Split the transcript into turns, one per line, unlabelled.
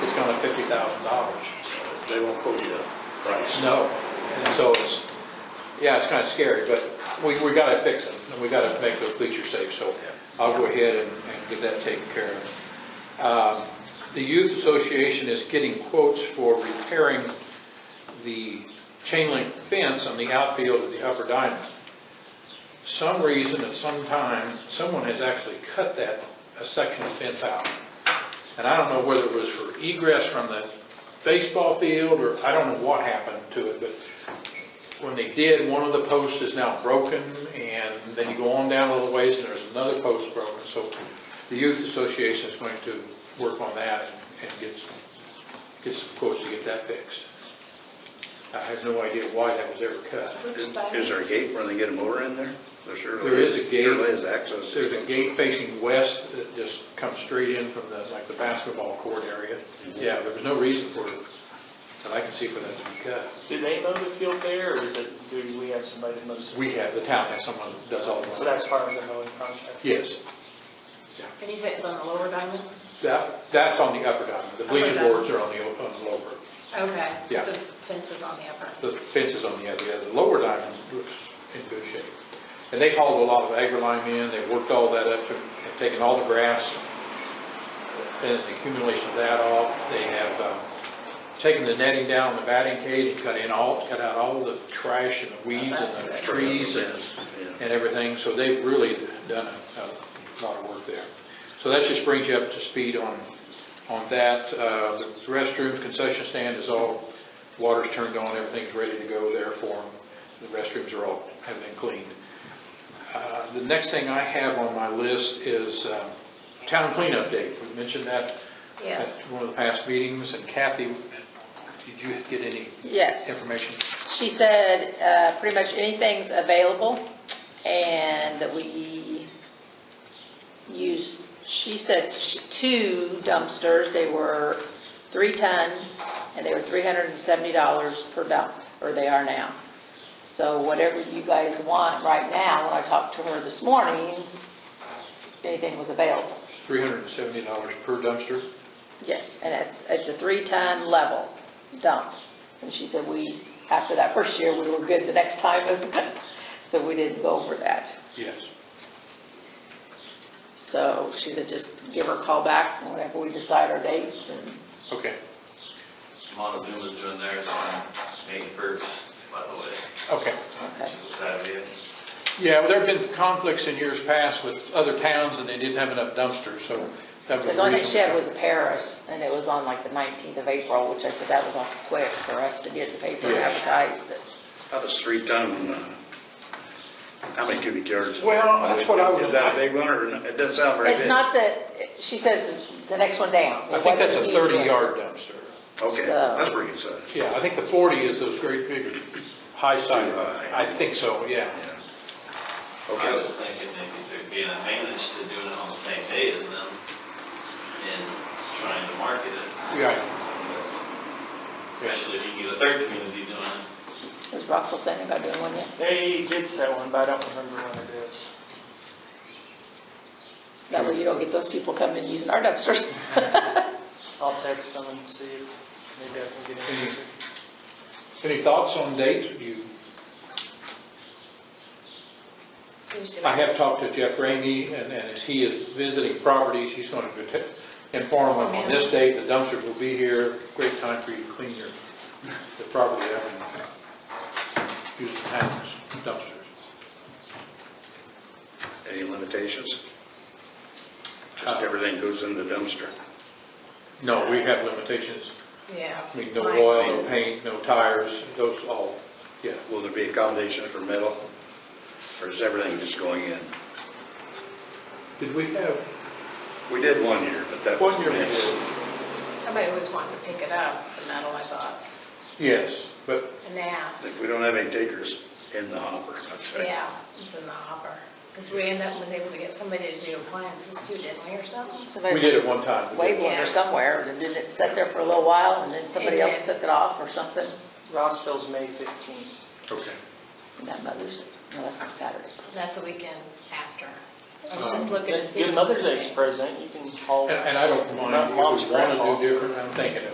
thousand dollars. They won't quote you a price.
No. And so it's, yeah, it's kind of scary, but we, we got to fix it, and we got to make those bleachers safe, so I'll go ahead and, and get that taken care of. Um, The youth association is getting quotes for repairing the chain link fence on the outfield of the upper diamond. Some reason at some time, someone has actually cut that, a section of fence out. And I don't know whether it was for egress from the baseball field, or I don't know what happened to it, but when they did, one of the posts is now broken, and then you go on down a little ways, and there's another post broken. So the youth association is going to work on that and- and get, some- get some quotes to get that fixed. I have no idea why that was ever cut.
Is is there a gate where they get a motor in there? There surely
There is a gate.
Surely is access.
There's a gate facing west that just comes straight in from the, like the basketball court area. Yeah, there was no reason for it, that I can see for that to be cut.
Do they mow the field there, or is it, do we have somebody that mows?
We have, the town has someone that does all the
So
mowing.
that's part of the mowing contract?
Yes,
Can you say it's on the lower diamond?
that, that's on the upper diamond. The bleacher
Upper diamond.
boards are on the, o- on the lower.
Okay.
Yeah.
The fence is on the upper.
The fence is on the other, the lower diamond looks in good shape. And they hauled a lot of agrolime in, they worked all that up, to- have taken all the grass and the accumulation of that off. They have um, taken the netting down on the batting cage and cut in all, cut out all the trash and the weeds and
That's
the
good.
trees and,
Yeah.
and everything. So they've really done a, a lot of work there. So that just brings you up to speed on, on that. Uh, The restrooms, concession stand is all, water's turned on, everything's ready to go there for them. The restrooms are all, have been cleaned. Uh, The next thing I have on my list is um, town cleanup day. We mentioned that at
Yes.
one of the past meetings, and Kathy, did you get any
Yes.
information?
She said uh, pretty much anything's available and that we use, she said she- two dumpsters, they were three ton and they were $370 per dump, or they are now. So whatever you guys want right now, when I talked to her this morning, anything was available.
$370 per dumpster?
Yes, and it's, it's a three-ton level dump. And she said we, after that first year, we were good the next time, so we didn't go over that.
Yes.
So she said just give her a call back whenever we decide our dates and
Okay,
Montezuma's doing theirs on May first, by the way,
okay.
okay.
which is a Saturday.
Yeah, well, there have been conflicts in years past with other towns, and they didn't have enough dumpsters, so that was.
Because
the
the only thing
reason-
she had was Paris, and it was on like the 19th of April, which I said that was awful quick for us to get the paper
Yeah.
advertised. that-
How does three ton, uh, how many cubic yards?
Well, that's what I was-
Is that a big one or, not? it doesn't sound very big?
It's not the, she says the next one down.
I think that's a
It wasn't huge one.
30-yard dumpster.
Okay,
so-
that's pretty good size.
Yeah, I think the 40 is those great big, high side.
Too high.
I think so, yeah.
Yeah.
I
Okay,
was thinking maybe there'd be an advantage to doing it on the same day as them and trying to market it,
Yeah,
especially if you get a third community doing it.
Was Rockville sending about doing one yet?
They did set one, but I don't remember when it is.
That way you don't get those people coming and using our dumpsters.
I'll text them and see if maybe I can get
Mm-hmm.
an answer.
any thoughts on dates? You
You see
I
that?
have talked to Jeff Ramey, and, and as he is visiting properties, he's going to protect- inform them on this date, the dumpsters will be here, great time for you to clean your, the property out and use the town's dumpsters.
any limitations? Just everything goes in the dumpster.
No, we have limitations,
Yeah.
Ah. I mean, no
Mine
oil, no
is-
paint, no tires, those all, yeah.
Will there be accommodation for metal? Or is everything just going in?
Did we have,
We did one year, but that was.
one year we
nice.
did,
Somebody was wanting to pick it up, the metal, I thought,
yes, but
and they asked.
If we don't have any takers in the hopper, I'd say.
Yeah, it's in the hopper. Because we ended up, was able to get somebody to do appliances too, didn't we, or something?
we did it one time.
Wave one
Yeah.
or somewhere, and then it sat there for a little while, and then somebody
It
else
did.
took it off or something.
Rockville's May 15th.
Okay.
And that Mother's, no, that's on Saturday.
That's the weekend after. I was just looking to see.
Good Mother's Day's present, you can haul.
And, and I don't mind,
Not
if we
mom's
want
grandpa.
to do different, I'm thinking of